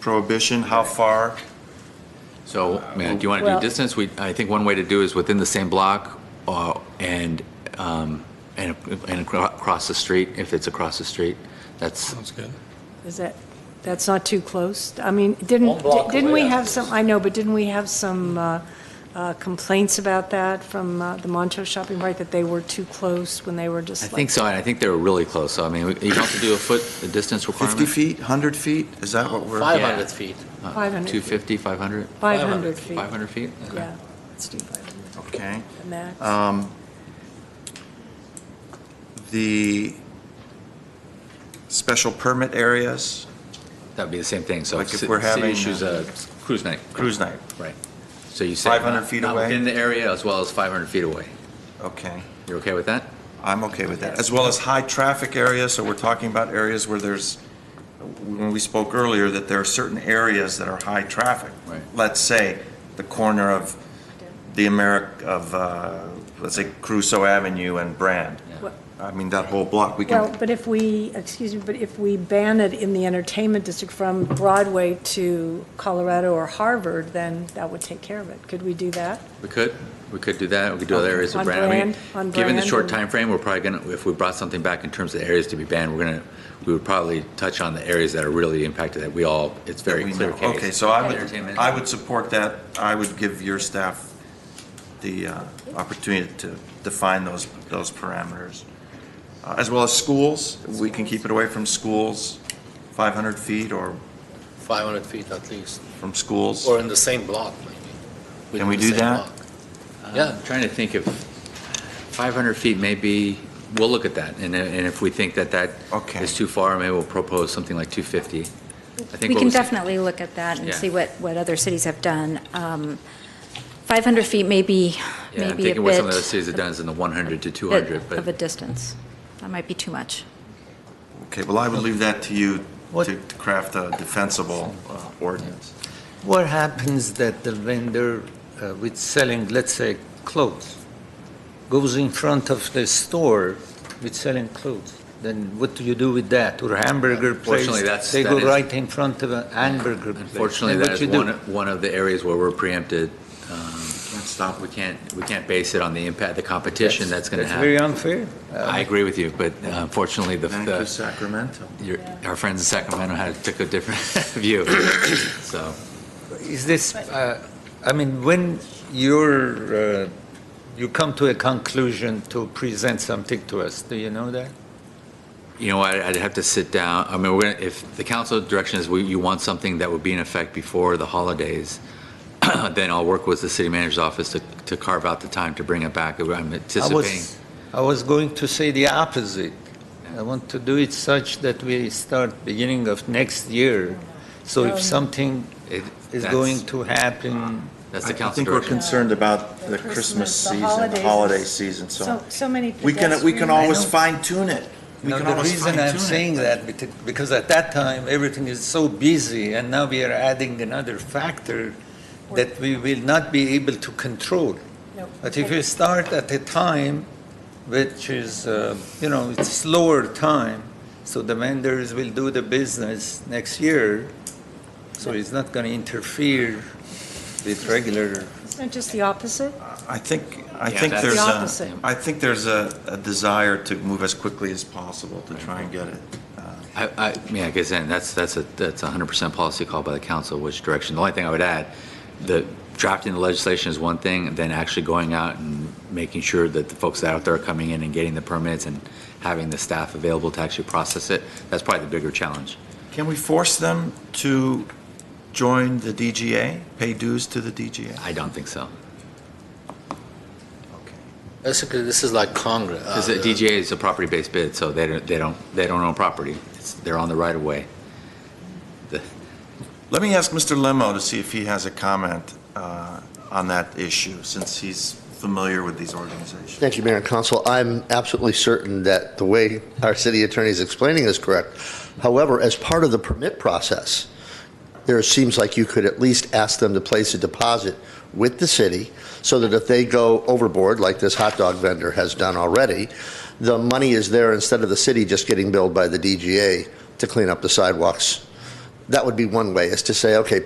prohibition, how far? So, man, do you want to do Well- distance? We, I think one way to do is within the same block uh, and, um, and, and acro- across the street, if it's across the street. That's, Sounds good. Is that, that's not too close? I mean, didn't, One block didn't we away, have that's- some, I know, but didn't we have some uh, uh, complaints about that from uh, the Montrose Shopping Park, that they were too close when they were just I like... think so, and I think they were really close. So, I mean, you have to do a foot, a distance 50 requirement? feet, 100 feet? Is that what we're? 500 feet. Uh, 500 feet. 250, 500? 500 feet. 500 feet? Okay. Yeah, let's do 500, Okay. the max. Um, The special permit areas, That'd be the same thing, so. Like if ci- we're having, uh, City issues a cruise night. cruise night, Right. So you say. 500 not- feet Not away? within the area as well as 500 feet away. okay. You're okay with that? I'm okay with that, as well as high-traffic areas, so we're talking about areas where there's, when we spoke earlier, that there are certain areas that are high-traffic. Right. Let's say, the corner of the Americ, of, uh, let's say, Crusoe Avenue and Brand. Well- I mean, that whole block, we Well, can, but if we, excuse me, but if we ban it in the entertainment district from Broadway to Colorado or Harvard, then that would take care of it. Could we do that? We could, we could do that, we could do other areas of On brand. I mean, brand, on Given the brand short and- time frame, we're probably gonna, if we brought something back in terms of the areas to be banned, we're gonna, we would probably touch on the areas that are really impacted, that we all, it's very we clear know. case. Okay, so I would, Entertainment. I would support that. I would give your staff the uh, opportunity to define those, those parameters. Uh, As well as schools, we can keep it away from schools, 500 feet or 500 feet at least, from schools. or in the same block, maybe. Can we Within the do same that? block. Yeah, I'm trying to think if 500 feet maybe, we'll look at that, and, and if we think that that Okay. is too far, maybe we'll propose something like 250. I think We what can was- definitely look at that and Yeah. see what, what other cities have done. Um, 500 feet may be, Yeah, I'm maybe a thinking what some of bit- those cities have done is in the 100 to bit 200, Of a but distance. That might be too much. Okay, well, I would leave that to you What- to to craft a defensible uh, ordinance. What happens that the vendor uh, with selling, let's say, clothes, goes in front of the store with selling clothes? Then what do you do with that? Or hamburger place? Unfortunately, that's- They that go is- right in front of a hamburger place. unfortunately, Then that is what you do? one, one of the areas where we're preempted. Um, Can't stop We can't, we can't base it on the impact, the competition that's going to That's happen. very unfair. I agree with you, but unfortunately, the, Thank you, the, Sacramento. your, our friends in Sacramento had took a different view. So, Is this, uh, I mean, when you're, uh, you come to a conclusion to present something to us, do you know that? you know, I, I'd have to sit down. I mean, we're gonna, if the council direction is we, you want something that would be in effect before the holidays, then I'll work with the city manager's office to, to carve out the time to bring it back. I'm I anticipating. was, I was going to say the opposite. I want to do it such that we start beginning of next year. So if something It- is that's- going to happen, That's I the I council think we're direction. concerned about the The Christmas Christmas, the season, the holidays. holiday season, So, so many We can, we pedestrian- can always know. fine tune it. We now can the always reason I'm fine-tune it. saying that, bet- because at that time, everything is so busy, and now we are adding another factor that we will not be able to control. No. But if you start at a time which is, uh, you know, it's slower time, so the vendors will do the business next year, so it's not going to interfere with regular. Isn't it just the opposite? I think, I Yeah, think that's- there's The a, opposite. I think there's a, a desire to move as quickly as possible to try and get it. uh, I, I, yeah, I guess then that's, that's a, that's a hundred percent policy call by the council, which direction. The only thing I would add, the drafting the legislation is one thing, and then actually going out and making sure that the folks that are out there are coming in and getting the permits and having the staff available to actually process it, that's probably the bigger challenge. Can we force them to join the DGA, pay dues to the DGA? I don't think so. Okay. Basically, this is like Congress. Uh, Because the DGA is a property-based bid, so they don't, they don't, they don't own property. It's, they're on the right of way. The- Let me ask Mr. Lemo to see if he has a comment uh, on that issue, since he's familiar with these organizations. Thank you, Mayor and Council. I'm absolutely certain that the way our city attorney is explaining is correct. However, as part of the permit process, there seems like you could at least ask them to place a deposit with the city so that if they go overboard, like this hot dog vendor has done already, the money is there instead of the city just getting billed by the DGA to clean up the sidewalks that would be one way, is to say, okay,